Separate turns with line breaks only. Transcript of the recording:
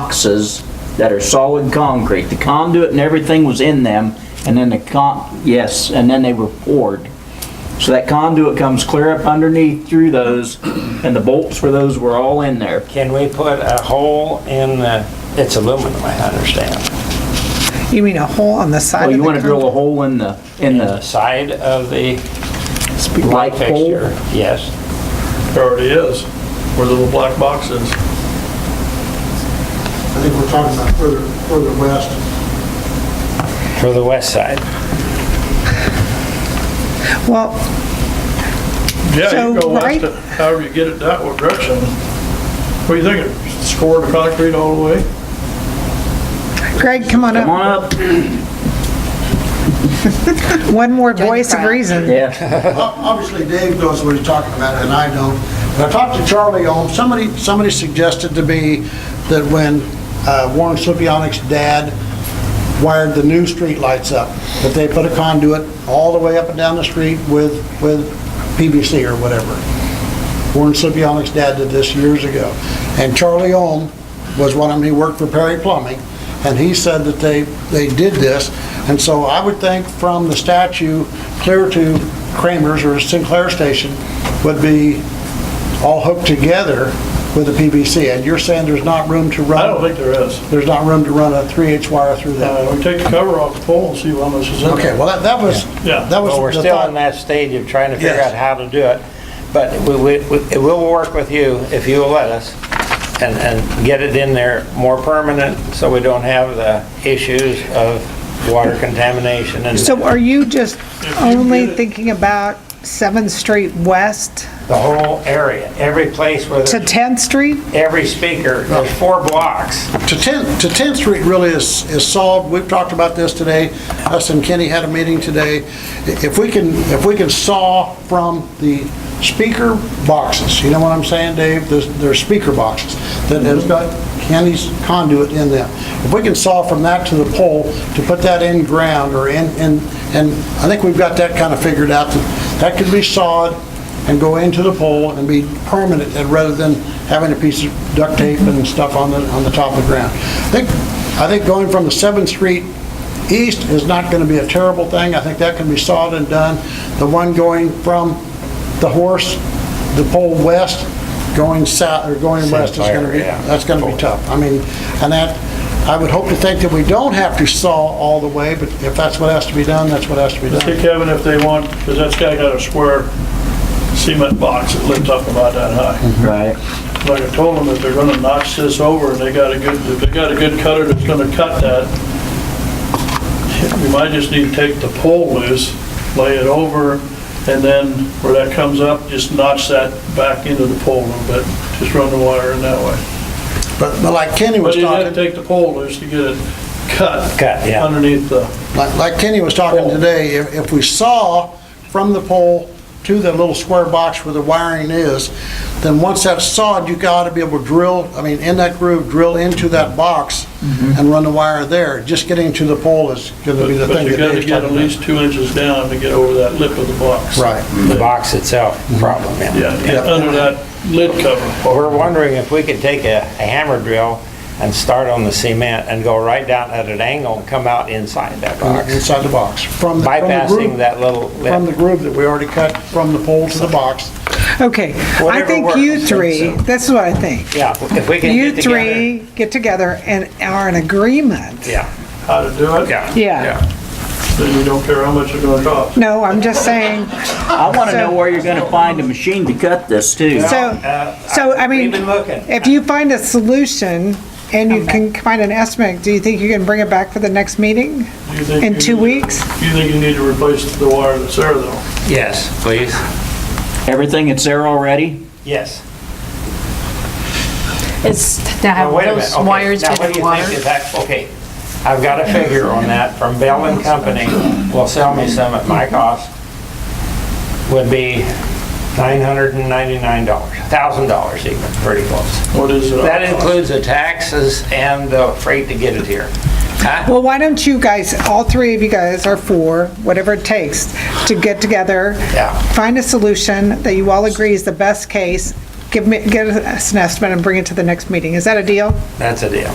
boxes that are solid concrete. The conduit and everything was in them, and then the con, yes, and then they were poured. So that conduit comes clear up underneath through those, and the bolts for those were all in there.
Can we put a hole in the, it's aluminum, I understand,
You mean a hole on the side
Oh,
of the
you wanna drill a
con-
hole in the, in
the
the
side of the
light
light
pole?
fixture? Yes.
There already is, where the little black box is.
I think we're talking about further, further west.
For the west side.
Well,
Yeah, you
So,
go west,
right-
to- however you get it that way direction. What do you thinking? Score the concrete all the way?
Greg, come on
Come
up.
on up.
One more
Join the
voice of
crowd.
reason.
Yeah,
Ob- Obviously, Dave knows what he's talking about, and I don't. But I talked to Charlie Ohm, somebody, somebody suggested to me that when uh, Warren Slipionic's dad wired the new street lights up, that they put a conduit all the way up and down the street with, with PVC or whatever. Warren Slipionic's dad did this years ago. And Charlie Ohm was one of them, he worked for Perry Plumbing, and he said that they, they did this. And so I would think from the statue clear to Kramer's or Sinclair Station would be all hooked together with a PVC. And you're saying there's not room to run?
I don't think there is.
There's not room to run a 3H wire through
Uh,
that?
we take the cover off the pole and see how much is in there.
Okay, well, that- that was,
Yeah.
that was
Well, we're
the
still in
thought.
that stage of trying to figure
Yes.
out how to do it, but we, we, we- we'll work with you if you will let us and, and get it in there more permanent, so we don't have the issues of water contamination and
So
the
are you just
you
only
get it-
thinking about 7th Street West
whole area, every place where,
to
there's
10th Street?
every speaker, there's four blocks.
To 10th, to 10th Street really is, is solved, we've talked about this today, us and Kenny had a meeting today. I- If we can, if we can saw from the speaker boxes, you know what I'm saying, Dave? There's, there's speaker boxes that has got Kenny's conduit in them. If we can saw from that to the pole, to put that in ground or in, in, and I think we've got that kind of figured out, that that could be sawed and go into the pole and be permanent, and rather than having a piece of duct tape and stuff on the, on the top of the ground. I think, I think going from the 7th Street east is not going to be a terrible thing. I think that can be sawed and done. The one going from the horse, the pole west, going south, or going west is going to be,
Sapphire, yeah.
that's going to be tough. I mean, and that, I would hope to think that we don't have to saw all the way, but if that's what has to be done, that's what has to be
Let's get
done.
Kevin if they want, because that's guy got a square cement box that lifts up about that high.
right.
Like I told them, if they're gonna notch this over and they got a good, if they got a good cutter that's gonna cut that, we might just need to take the pole loose, lay it over, and then where that comes up, just notch that back into the pole a little bit, just run the wire in that way.
But, but like Kenny was
But you have
talking.
to take the pole loose to get it cut.
Cut, yeah.
Underneath the,
Like like Kenny was talking
Pole.
today, if if we saw from the pole to the little square box where the wiring is, then once that's sawed, you gotta be able to drill, I mean, in that groove, drill into that box and run the wire there. Just getting to the pole is gonna
but
be the
Mm-hmm. but
thing
you
that
gotta
Dave's
get at
talking
least
about.
two inches down to get over that lip of the box.
Right.
The box itself, problem,
Yeah, and under that lid cover.
Well, we're wondering if we could take a a hammer drill and start on the cement and go right down at an angle and come out inside that box,
Inside the box. From the- from the
bypassing
groove-
that little
From the
lip.
groove that we already cut from the pole to the box.
Okay, I
Whatever
think
works, I
you
think
three,
so.
this is what I think.
Yeah, if we can
You
get together.
three get together and are in agreement.
Yeah,
How to do it?
yeah.
Yeah.
Then you don't care how much it's gonna cost.
No, I'm just saying,
I wanna
So-
know where you're gonna find a machine to cut this too.
so,
uh,
so I mean,
Uh, We've been looking.
if you find a solution and you can find an estimate, do you think you can bring it back for the next meeting?
Do you think
In
you
two
need-
weeks?
You think you need to replace the wire that's there though?
Yes, please.
Everything that's there already?
Yes.
It's to have
Now, Oh, wait a
those
minute, okay,
wires
now,
to
what do
the
you
water.
think is that- Okay, I've got a figure on that from Bell and Company, will sell me some at my cost, would be $999, $1,000 even, pretty close.
What is it?
That includes the taxes and the freight to get it here. Huh?
Well, why don't you guys, all three of you guys or four, whatever it takes, to get together,
Yeah.
find a solution that you all agree is the best case, give me, give us an estimate and bring it to the next meeting. Is that a deal?
That's a deal.